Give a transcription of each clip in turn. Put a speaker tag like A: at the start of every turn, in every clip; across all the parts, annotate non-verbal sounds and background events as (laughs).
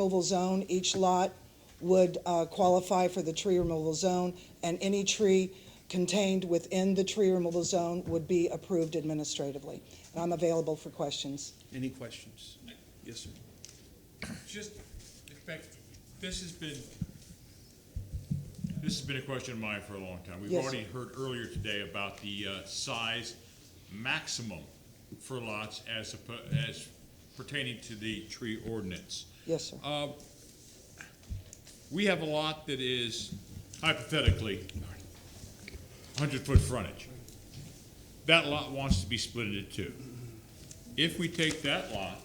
A: removal zone, each lot would uh, qualify for the tree removal zone, and any tree contained within the tree removal zone would be approved administratively. And I'm available for questions.
B: Any questions? Yes, sir.
C: Just, in fact, this has been, this has been a question of mine for a long time. We've
A: Yes.
C: already heard earlier today about the uh, size maximum for lots as, oppo- as pertaining to the tree ordinance.
A: Yes, sir.
C: Uh, We have a lot that is hypothetically 100-foot frontage. That lot wants to be split into two. If we take that lot,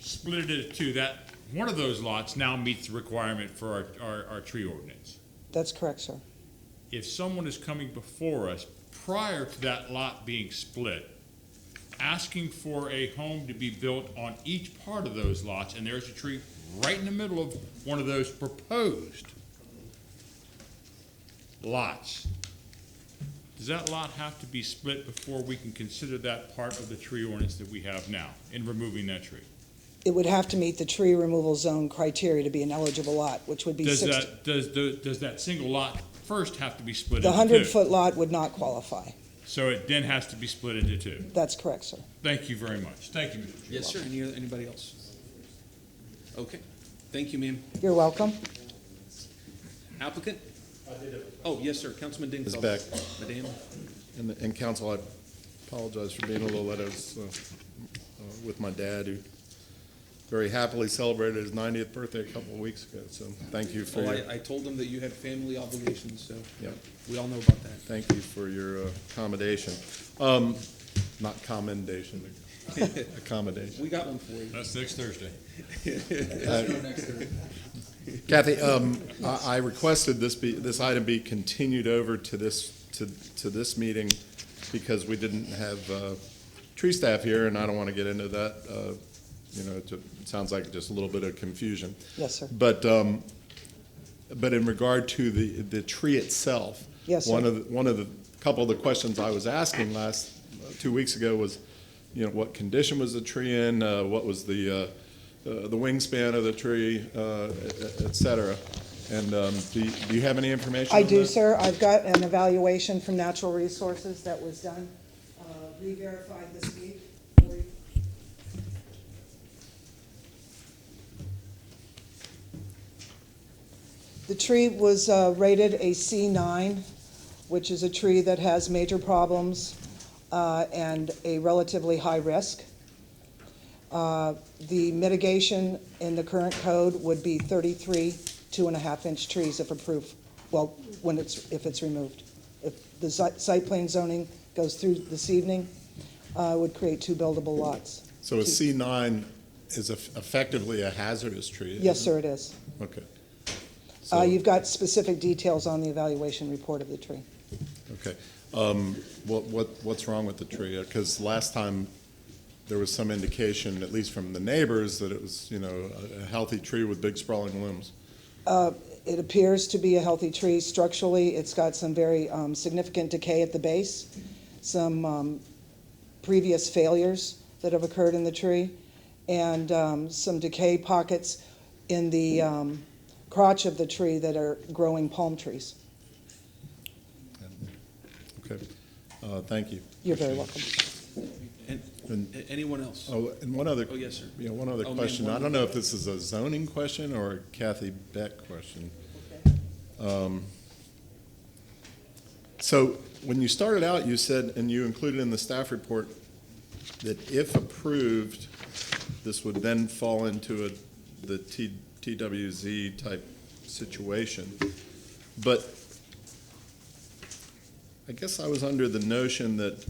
C: split it into two, that, one of those lots now meets the requirement for our, our, our tree ordinance.
A: That's correct, sir.
C: If someone is coming before us prior to that lot being split, asking for a home to be built on each part of those lots, and there's a tree right in the middle of one of those proposed lots, does that lot have to be split before we can consider that part of the tree ordinance that we have now in removing that tree?
A: It would have to meet the tree removal zone criteria to be an eligible lot, which would be
C: Does
A: sixty.
C: that, does, the- does that single lot first have to be split
A: The
C: into two?
A: hundred-foot lot would not qualify.
C: So it then has to be split into two.
A: That's correct, sir.
C: Thank you very much. Thank you, Mr. Chairman.
D: Yes, sir. Any, other- anybody else? Okay. Thank you, ma'am.
A: You're welcome.
D: Applicant? Oh, yes, sir. Councilman Dingfelter.
E: It's back.
D: Madam,
E: And, and council, I apologize for being a little late. I was uh, uh, with my dad, who very happily celebrated his 90th birthday a couple of weeks ago. So thank you for,
D: well,
E: your-
D: oh, I, I told them that you had family obligations, so
E: Yep.
D: we all know about that.
E: thank you for your uh, accommodation. Um, Not
D: (laughs)
E: commendation, accommodation.
D: We got one for you.
C: That's next Thursday.
E: Kathy, um, I I requested this be, this item be continued over to this, to, to this meeting because we didn't have, uh, tree staff here and I don't want to get into that, uh, you know, it sounds like just a little bit of confusion.
A: Yes, sir.
E: But, um, but in regard to the, the tree itself.
A: Yes, sir.
E: One of, the- one of the, couple of the questions I was asking last, two weeks ago was, you know, what condition was the tree in? uh, What was the, uh, uh, the wingspan of the tree, uh, et et cetera? And um, do you do you have any information
A: I
E: on
A: do,
E: that?
A: sir. I've got an evaluation from Natural Resources that was done, uh, re-verified this week. The tree was uh, rated a C9, which is a tree that has major problems uh, and a relatively high risk. Uh, The mitigation in the current code would be 33 two-and-a-half-inch trees if approved, well, when it's, if it's removed. If the si- site plan zoning goes through this evening, uh, it would create two buildable lots.
E: So a C9 is eff- effectively a hazardous tree?
A: Yes,
E: isn't
A: sir, it is.
E: it? Okay.
A: Uh,
E: So-
A: You've got specific details on the evaluation report of the tree.
E: Okay. Um, What, what, what's wrong with the tree? Because last time, there was some indication, at least from the neighbors, that it was, you know, a- a healthy tree with big sprawling limbs.
A: It appears to be a healthy tree structurally. It's got some very um, significant decay at the base, some um, previous failures that have occurred in the tree, and um, some decay pockets in the um, crotch of the tree that are growing palm trees.
E: Okay. Uh, Thank you.
A: You're very welcome.
D: And,
E: And-
D: a- anyone else?
E: Oh, and one other.
D: Oh, yes, sir.
E: Yeah, one other
D: Oh, ma'am,
E: question.
D: one
E: I don't
D: other.
E: know if this is a zoning question or a Kathy Beck question. Um, So when you started out, you said, and you included in the staff report, that if approved, this would then fall into a, the T- TWZ type situation. But I guess I was under the notion that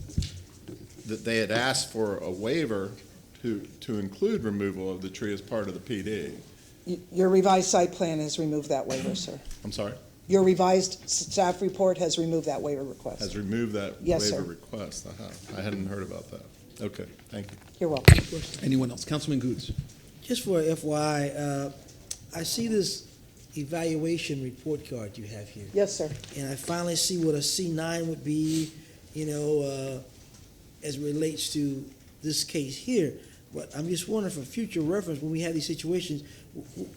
E: that they had asked for a waiver to, to include removal of the tree as part of the PD.
A: Y- Your revised site plan has removed that waiver, sir.
E: I'm sorry,
A: Your revised s- staff report has removed that waiver request.
E: has removed that
A: Yes,
E: waiver
A: sir.
E: request. Aha, I hadn't heard about that. Okay, thank you.
A: You're welcome.
D: Anyone else? Councilman Goods.
F: Just for FYI, uh, I see this evaluation report card you have here,
A: Yes, sir.
F: and I finally see what a C9 would be, you know, uh, as it relates to this case here. But I'm just wondering for future reference, when we have these situations, W- w-